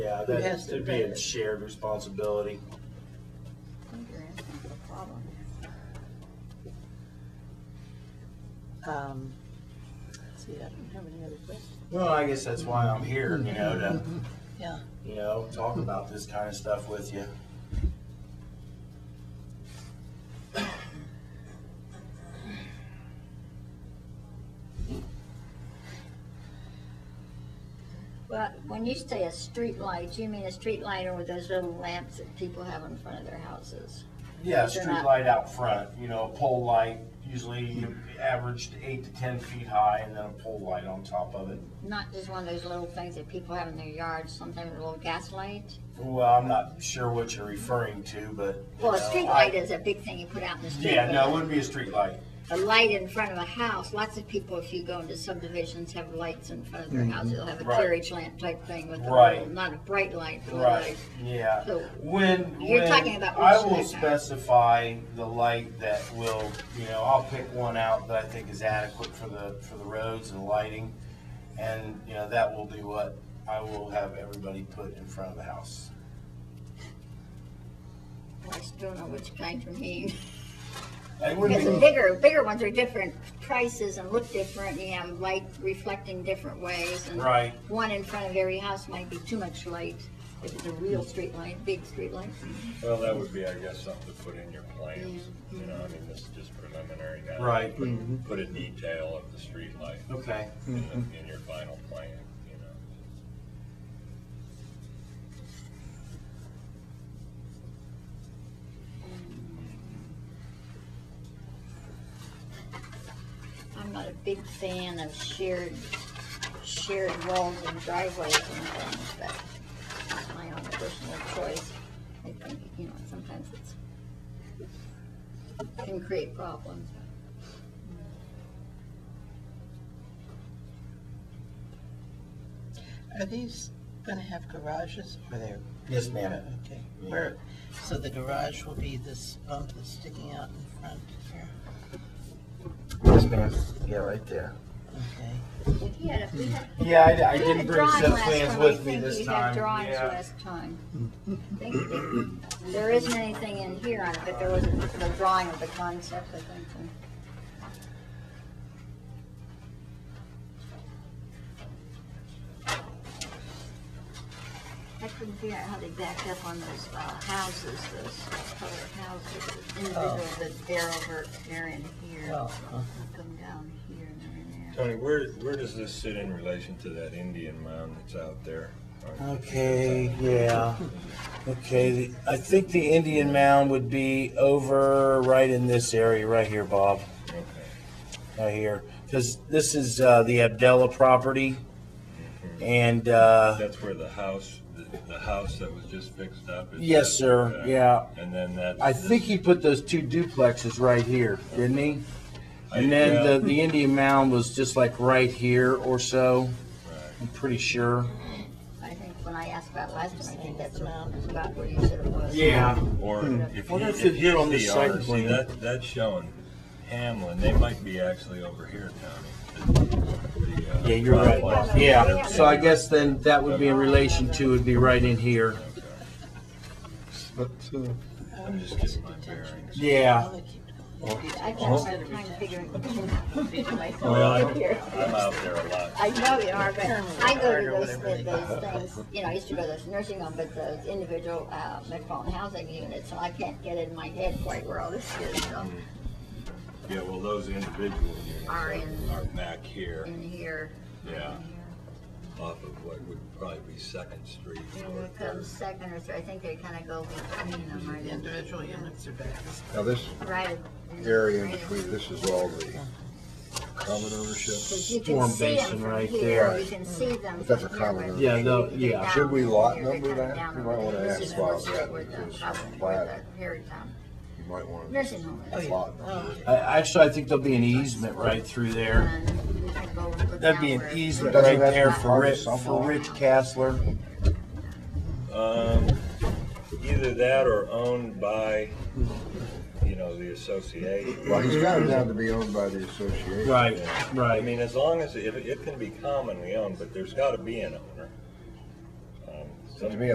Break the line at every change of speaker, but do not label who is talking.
Yeah,
Who
that
has to
should
pay
be a
it?
shared responsibility.
think you're asking for a problem.
Um, see, I don't have any other questions.
Well, I guess that's why I'm here, you know, to,
Yeah,
you know, talk about this kind of stuff with you.
Well, when you say a street light, you mean a street light or those little lamps that people have in front of their houses?
Yeah,
They're
street
not-
light out front, you know, a pole light, usually averaged eight to ten feet high, and then a pole light on top of it.
Not just one of those little things that people have in their yards, sometimes a little gas light?
Well, I'm not sure what you're referring to, but. you
Well, a
know,
street
I-
light is a big thing you put out in the street.
Yeah, no, it
but
would be a street light.
A light in front of a house, lots of people, if you go into subdivisions, have lights in front of their house. They'll have a
Right.
carriage lamp type thing with a
Right.
little, not a bright light, but a
Right,
light.
yeah.
So-
When,
You're
when,
talking about
I
which
will
light, huh?
specify the light that will, you know, I'll pick one out that I think is adequate for the, for the roads and lighting. And, you know, that will be what I will have everybody put in front of the house.
I still don't know which kind you mean.
It
Because the
wouldn't be,
bigger, bigger ones are different prices and look different, you have light reflecting different ways. and
Right.
One in front of every house might be too much light, if it's a real street light, big street light.
Well, that would be, I guess, something to put in your plans, you know, I mean, this is just preliminary now.
Right.
Put- Put a detail of the streetlight
okay,
in,
Mm-hmm.
the- in your final plan, you know.
I'm not a big fan of shared, shared walls and driveways and things, but that's my own personal choice. I think, you know, sometimes it's, can create problems.
are these gonna have garages or they're?
yes, ma'am.
Okay, where, so the garage will be this bump that's sticking out in front here,
Yes, ma'am. Yeah, right there.
okay?
If you had a- we had-
Yeah, I, I
You had a
didn't bring
drawing
set
last
plans
time.
with me
I
this
think you had
time,
drawings
yeah.
last time. I think you did. There isn't anything in here on it, but there was a a drawing of the concept, I think. and- I couldn't figure out how they backed up on those uh, houses, those colored houses, the individual
Oh.
that they're over, they're in here.
Well, uh-huh.
Come down here and they're in there.
Tony, where, where does this sit in relation to that Indian mound that's out there?
Okay, yeah. Okay, the- I think the Indian mound would be over right in this area, right here, Bob,
Okay,
right here. Because this is uh, the Abdella property. And, uh,
that's where the house, the, the house that was just fixed up is.
yes, sir,
Okay.
yeah.
And then that.
I think he put those two duplexes right here, didn't he? And then the, the Indian mound was just like right here or so, I'm pretty sure.
I think when I asked about last time, I think that's about where you said it was.
Or if
Wonder
you,
if
if
it's here
you
on
see
this site
ours, see
plan.
that, that's showing Hamlin, they might be actually over here, Tony. The, uh,
Yeah, you're right.
complex.
Yeah, so I guess then that would be in relation to, would be right in here.
I'm just getting my bearings.
Yeah.
Well, Oh, they keep going.
I can't spend time figuring.
Oh. Well, I'm, I'm out there a lot.
I know you are, but I go to those, those things, you know, I used to go to those nursing home, but those individual, uh, metropolitan housing units, and I can't get in my head quite where all this is, so,
Yeah, well, those individual units
Are
are
in-
are back here,
in here.
Mm. yeah, off of what would probably be Second Street.
And it comes second or third, I think they kinda go between them, right?
The
in-
individual units are back.
Now, this
Right.
area in
right in-
between, this is all the common ownership.
Because you can
Storm
see
basin
them from
right
here,
there.
you can see them
But that's a
from here.
common-
but
Yeah, no,
they're
yeah.
down
Should we lot
here, they're
number
coming
that?
down
We might wanna
over there.
ask
This is
Bob
what's
that,
with the
because
problem,
flat-
with the Harry Town
You might want to.
Nursing home.
Oh, yeah.
Lot.
Oh.
I- Actually, I think there'll be an easement right through there.
And we can go look
That'd be an
downward.
easement
Doesn't
right
that
there for
require
Rich, for
something?
Rich Castler.
Um, either that or owned by, you know, the association.
Well, he's got it down to be owned by the association.
Right,
I
right.
mean, as long as, it, it can be commonly owned, but there's gotta be an owner. Um,
To me,